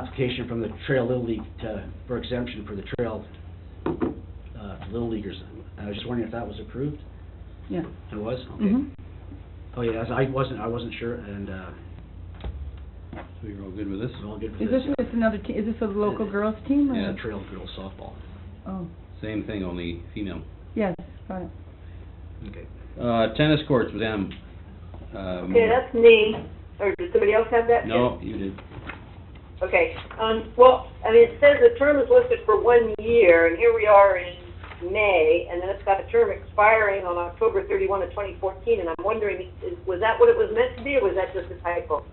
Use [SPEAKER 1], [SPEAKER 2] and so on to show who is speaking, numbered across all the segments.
[SPEAKER 1] application from the Trail Little League to, for exemption for the trail, uh, Little Leaguers. I was just wondering if that was approved?
[SPEAKER 2] Yeah.
[SPEAKER 1] It was? Okay.
[SPEAKER 2] Mhm.
[SPEAKER 1] Oh, yeah, I wasn't, I wasn't sure, and, uh,
[SPEAKER 3] So you're all good with this?
[SPEAKER 1] it's all good for
[SPEAKER 2] Is
[SPEAKER 1] this.
[SPEAKER 2] this, it's another te, is this a local girls team or?
[SPEAKER 1] Yeah, Trail Girls Softball.
[SPEAKER 2] Oh,
[SPEAKER 3] Same thing, only female.
[SPEAKER 2] yes, got it.
[SPEAKER 1] Okay.
[SPEAKER 3] Uh, tennis courts with M. Um,
[SPEAKER 4] Okay, that's me, or did somebody else have that?
[SPEAKER 3] No, you did.
[SPEAKER 4] Okay, um, well, I mean, it says the term is listed for one year, and here we are in May, and then it's got a term expiring on October thirty-one of twenty fourteen, and I'm wondering, is, was that what it was meant to be, or was that just a typo?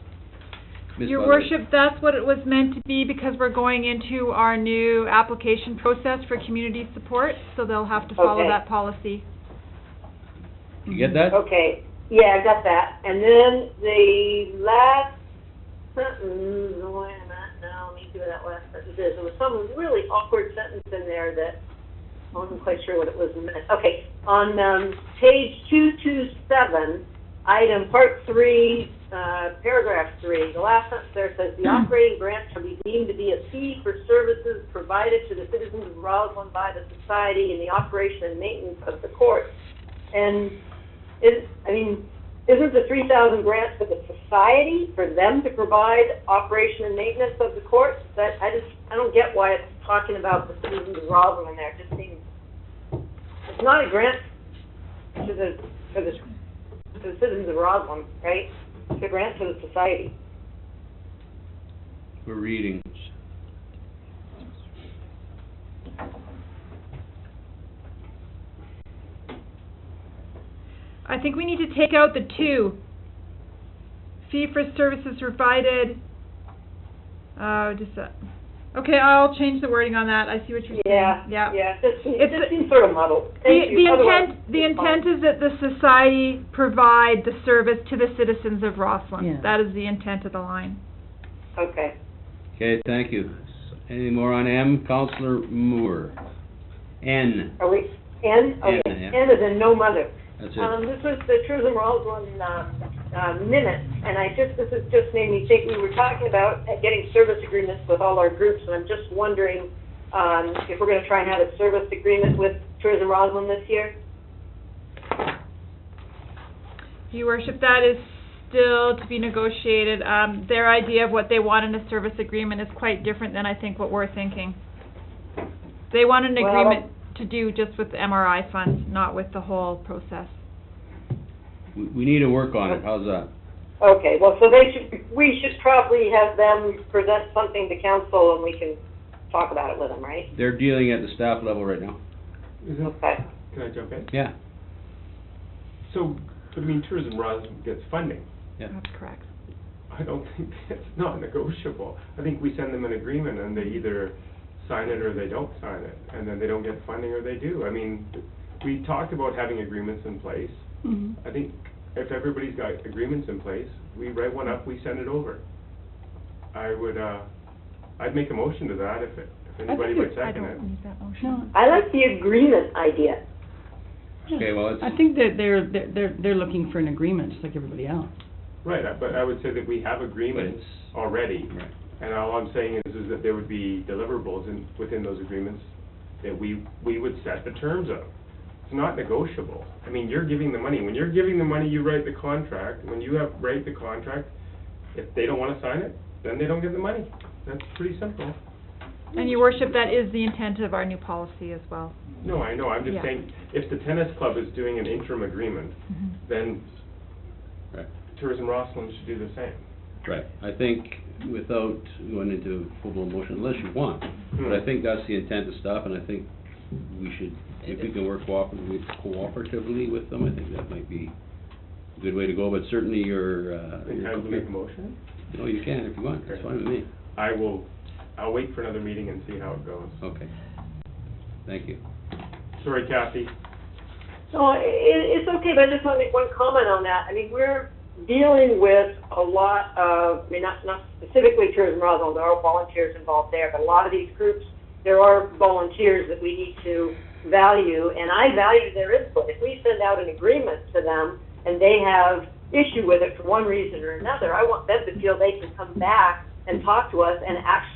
[SPEAKER 3] Ms.
[SPEAKER 5] Your
[SPEAKER 3] Butler.
[SPEAKER 5] worship, that's what it was meant to be because we're going into our new application process for community support, so they'll have to follow
[SPEAKER 4] Okay.
[SPEAKER 5] that policy.
[SPEAKER 3] You get that?
[SPEAKER 4] Okay, yeah, I got that, and then the last sentence, wait a minute, no, let me see what that last sentence is, there was some really awkward sentence in there that I wasn't quite sure what it was meant. Okay, on, um, page two-two-seven, item part three, uh, paragraph three, the last sentence there says, "The operating grant shall be deemed to be a fee for services provided to the citizens of Roslyn by the society in the operation and maintenance of the court." And is, I mean, isn't the three thousand grants for the society, for them to provide operation and maintenance of the courts? That, I just, I don't get why it's talking about the citizens of Roslyn in there, it just seems, it's not a grant to the, for the, to the citizens of Roslyn, right? It's a grant to the society.
[SPEAKER 3] We're reading.
[SPEAKER 5] I think we need to take out the two. Fee for services provided, uh, just that. Okay, I'll change the wording on that, I see what you're saying.
[SPEAKER 4] Yeah,
[SPEAKER 5] Yeah.
[SPEAKER 4] yeah, it just, it
[SPEAKER 5] It's
[SPEAKER 4] just
[SPEAKER 5] a-
[SPEAKER 4] seems sort of muddled.
[SPEAKER 5] The,
[SPEAKER 4] Thank
[SPEAKER 5] the
[SPEAKER 4] you. Otherwise,
[SPEAKER 5] intent, the
[SPEAKER 4] it's fine.
[SPEAKER 5] intent is that the society provide the service to the citizens of
[SPEAKER 2] Yeah.
[SPEAKER 5] Roslyn. That is the intent of the line.
[SPEAKER 4] Okay.
[SPEAKER 3] Okay, thank you. Any more on M? Counselor Moore. N,
[SPEAKER 4] Are we, N, okay,
[SPEAKER 3] N, yeah.
[SPEAKER 4] N is in no mother.
[SPEAKER 3] that's
[SPEAKER 4] Um,
[SPEAKER 3] it.
[SPEAKER 4] this was the Tourism Roseland, uh, uh, minutes, and I just, this has just made me think, we were talking about getting service agreements with all our groups, and I'm just wondering, um, if we're gonna try and have a service agreement with Tourism Roseland this year?
[SPEAKER 5] Your worship, that is still to be negotiated. Um, their idea of what they want in a service agreement is quite different than I think what we're thinking. They want an
[SPEAKER 4] Well-
[SPEAKER 5] agreement to do just with the MRI funds, not with the whole process.
[SPEAKER 3] We, we need to work
[SPEAKER 4] uh,
[SPEAKER 3] on it, how's that?
[SPEAKER 4] Okay, well, so they should, we should probably have them present something to council, and we can talk about it with them, right?
[SPEAKER 3] They're dealing at the staff level right now.
[SPEAKER 6] Is it,
[SPEAKER 4] Okay,
[SPEAKER 6] can I jump in?
[SPEAKER 3] Yeah,
[SPEAKER 6] So, but I mean, Tourism Roslin gets funding.
[SPEAKER 3] yeah.
[SPEAKER 5] That's correct.
[SPEAKER 6] I don't think that's not negotiable. I think we send them an agreement and they either sign it or they don't sign it, and then they don't get funding or they do. I mean, we talked about having agreements in place.
[SPEAKER 2] Mhm.
[SPEAKER 6] I think if everybody's got agreements in place, we write one up, we send it over. I would, uh, I'd make a motion to that if, it- if anybody would
[SPEAKER 5] I
[SPEAKER 6] second it.
[SPEAKER 5] don't need that motion.
[SPEAKER 2] No,
[SPEAKER 4] I like the agreement idea.
[SPEAKER 3] Okay, well, it's,
[SPEAKER 2] I think that they're, they're- they're, they're looking for an agreement, just like everybody else.
[SPEAKER 6] Right, I- but I would say that we have agreements
[SPEAKER 3] it's-
[SPEAKER 6] already.
[SPEAKER 3] right.
[SPEAKER 6] And all I'm saying is, is that there would be deliverables in, within those agreements that we, we would set the terms of. It's not negotiable. I mean, you're giving the money. When you're giving the money, you write the contract. When you have, write the contract, if they don't wanna sign it, then they don't get the money. That's pretty simple.
[SPEAKER 5] And your worship, that is the intent of our new policy as well.
[SPEAKER 6] No, I know, I'm just
[SPEAKER 5] Yeah.
[SPEAKER 6] saying, if the tennis club is doing an interim agreement,
[SPEAKER 5] Mhm.
[SPEAKER 6] then
[SPEAKER 3] Right.
[SPEAKER 6] Tourism Rosslyn should do the same.
[SPEAKER 3] Right, I think without going into full-blown motion, unless you want, but
[SPEAKER 6] Hmm.
[SPEAKER 3] I think that's the intent of stuff, and I think we should, if we can work cooperatively, cooperatively with them, I think that might be a good way to go, but certainly your, uh, your
[SPEAKER 6] Think Hmm. I would make a
[SPEAKER 3] commi-
[SPEAKER 6] motion?
[SPEAKER 3] no, you can if you want, that's fine with me,
[SPEAKER 6] I will, I'll wait for another meeting and see how it goes.
[SPEAKER 3] okay. Thank you.
[SPEAKER 6] Sorry, Kathy.
[SPEAKER 4] No, i i- it's okay, but I just want to make one comment on that. I mean, we're dealing with a lot of, I mean, not, not specifically Tourism Roswell, there are volunteers involved there, but a lot of these groups, there are volunteers that we need to value, and I value their input. If we send out an agreement to them and they have issue with it for one reason or another, I want them to feel they can come back and talk to us and actually